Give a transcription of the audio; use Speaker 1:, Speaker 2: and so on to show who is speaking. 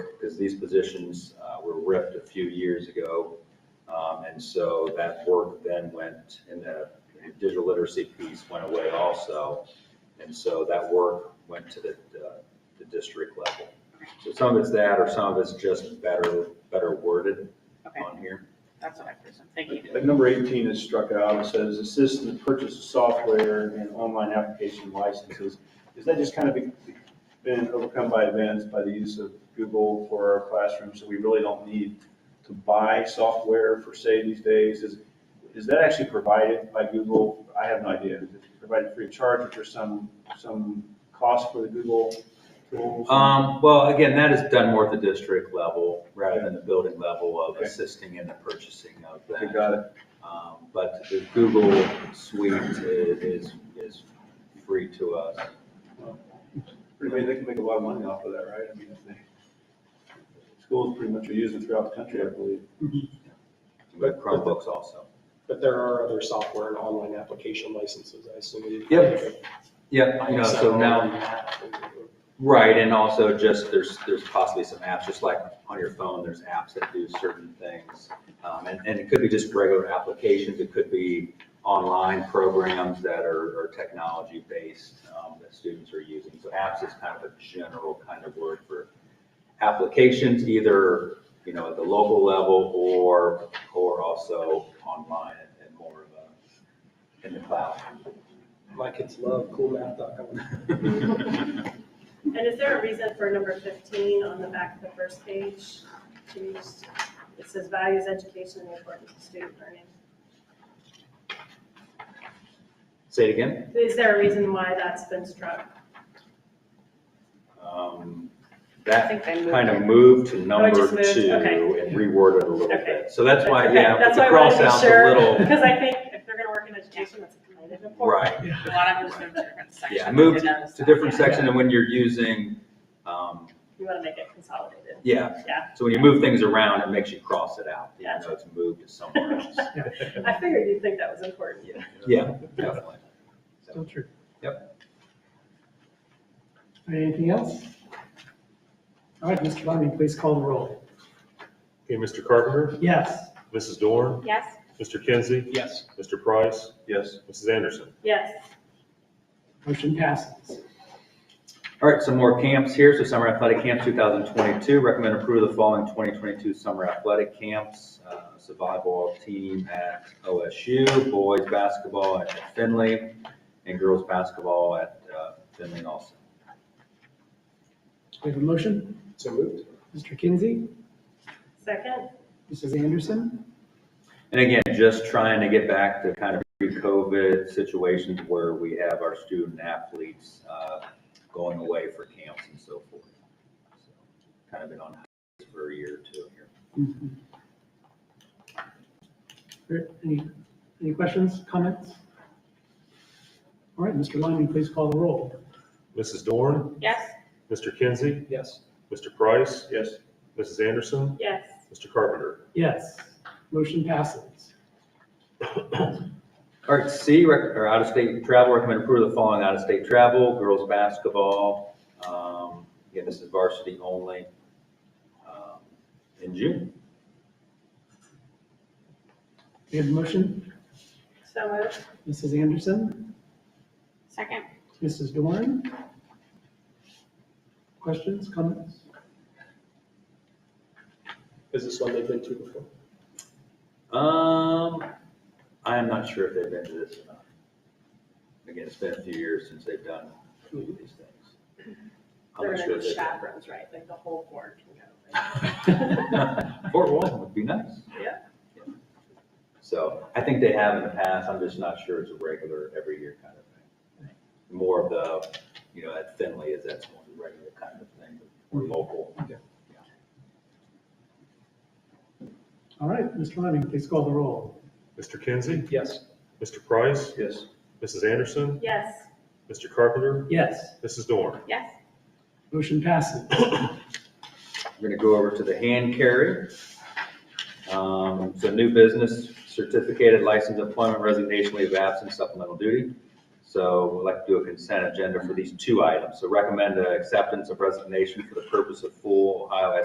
Speaker 1: because these positions uh, were ripped a few years ago. Um, And so that work then went, and the digital literacy piece went away also. And so that work went to the, uh, the district level. So some of it's that, or some of it's just better, better worded
Speaker 2: Okay,
Speaker 1: on here.
Speaker 2: that's what I presume. Thank you.
Speaker 3: But number 18 is struck out, it says assist in the purchase of software and online application licenses. Is that just kind of been overcome by events, by the use of Google for our classroom, so we really don't need to buy software for say these days? Is, is that actually provided by Google? I have no idea. Is it provided free of charge, or there's some, some cost for the Google tools?
Speaker 1: Um, well, again, that is done more at the district level rather than the building level of
Speaker 3: Okay.
Speaker 1: assisting in the purchasing of
Speaker 3: Okay,
Speaker 1: that.
Speaker 3: got it.
Speaker 1: Um, But the Google Suite i- is, is free to us.
Speaker 3: Pretty much, they can make a lot of money off of that, right? I mean, if they, schools pretty much are using throughout the country, I believe.
Speaker 1: We have Chromebooks also.
Speaker 4: But there are other software and online application licenses, I assume.
Speaker 1: Yep. Yeah, you know, so now, right, and also just, there's, there's possibly some apps, just like on your phone, there's apps that do certain things. Um, And, and it could be just regular applications, it could be online programs that are, are technology-based um, that students are using. So apps is kind of a general kind of word for applications, either, you know, at the local level or, or also online and more of a, in the cloud.
Speaker 4: My kids love coolmath.com.
Speaker 5: And is there a reason for number fifteen on the back of the first page? to use- It says values, education, and the importance of student learning.
Speaker 1: Say it again?
Speaker 5: Is there a reason why that's been struck?
Speaker 1: Um,
Speaker 2: I
Speaker 1: That
Speaker 2: think they moved
Speaker 1: kind of
Speaker 2: it.
Speaker 1: moved to number
Speaker 5: Oh, just moved,
Speaker 1: two
Speaker 5: okay.
Speaker 1: and reworded a little
Speaker 5: Okay.
Speaker 1: bit. So that's why,
Speaker 5: okay,
Speaker 1: yeah,
Speaker 5: That's
Speaker 1: the
Speaker 5: why I wanted
Speaker 1: cross
Speaker 5: to be
Speaker 1: out's
Speaker 5: sure,
Speaker 1: a little,
Speaker 5: because I think if they're gonna work in education, that's kind of important.
Speaker 1: right,
Speaker 2: A lot of them just moved to different sections.
Speaker 1: Yeah, moved
Speaker 2: I noticed
Speaker 1: to
Speaker 2: that,
Speaker 1: different
Speaker 2: yeah.
Speaker 1: section and when you're using, um,
Speaker 5: You wanna make it consolidated.
Speaker 1: yeah.
Speaker 5: Yeah.
Speaker 1: So when you move things around, it makes you cross it out, even
Speaker 5: Gotcha.
Speaker 1: though it's moved to somewhere else.
Speaker 5: I figured you'd think that was important.
Speaker 1: Yeah, definitely.
Speaker 6: Still true. Yep. Anything else? All right, Mr. Bunting, please call the roll.
Speaker 7: Okay, Mr. Carpenter,
Speaker 6: Yes.
Speaker 7: Mrs. Dorn,
Speaker 5: Yes?
Speaker 7: Mr. Kinsey,
Speaker 4: Yes.
Speaker 7: Mr. Price,
Speaker 3: Yes.
Speaker 7: Mrs. Anderson.
Speaker 5: Yes.
Speaker 6: Motion passes.
Speaker 1: All right, some more camps here. So summer athletic camp 2022, recommend approval of the following 2022 summer athletic camps. Uh, Survival team at OSU, boys basketball at Finley, and girls basketball at uh, Finley also.
Speaker 6: We have a motion.
Speaker 4: So moved?
Speaker 6: Mr. Kinsey,
Speaker 5: Second?
Speaker 6: Mrs. Anderson.
Speaker 1: And again, just trying to get back to kind of pre-COVID situations where we have our student athletes uh, going away for camps and so forth. So, Kind of been on hiatus for a year or two here.
Speaker 6: Any, any questions, comments? All right, Mr. Lyman, please call the roll.
Speaker 7: Mrs. Dorn,
Speaker 5: Yes.
Speaker 7: Mr. Kinsey,
Speaker 4: Yes.
Speaker 7: Mr. Price,
Speaker 3: Yes.
Speaker 7: Mrs. Anderson,
Speaker 5: Yes.
Speaker 7: Mr. Carpenter.
Speaker 6: Yes. Motion passes.
Speaker 1: All right, C, rec- or out-of-state travel, recommend approval of the following out-of-state travel, girls' basketball. um, Again, this is varsity only um, in June.
Speaker 6: We have a motion.
Speaker 5: So moved?
Speaker 6: Mrs. Anderson,
Speaker 2: Second.
Speaker 6: Mrs. Dorn. Questions, comments?
Speaker 4: Is this one they've been to before?
Speaker 1: Um, I am not sure if they've been to this or not. Again, it's been a few years since they've done these things. I'm
Speaker 5: They're
Speaker 1: not sure
Speaker 5: gonna
Speaker 1: if
Speaker 5: be
Speaker 1: they've done.
Speaker 5: chaperones, right? Like the whole board can go.
Speaker 1: Fort Walton would be nice.
Speaker 5: Yeah.
Speaker 1: So I think they have in the past, I'm just not sure it's a regular every year kind of thing. More of the, you know, at Finley is that's more the regular kind of thing, or local.
Speaker 6: All right, Mr. Lyman, please call the roll.
Speaker 7: Mr. Kinsey,
Speaker 4: Yes.
Speaker 7: Mr. Price,
Speaker 3: Yes.
Speaker 7: Mrs. Anderson,
Speaker 5: Yes.
Speaker 7: Mr. Carpenter,
Speaker 6: Yes.
Speaker 7: Mrs. Dorn.
Speaker 2: Yes.
Speaker 6: Motion passes.
Speaker 1: We're gonna go over to the hand carry. Um, so new business, certificated license, employment, resignation, leave of absence, supplemental duty. So we'd like to do a consent agenda for these two items. So recommend uh, acceptance of resignation for the purpose of full Ohio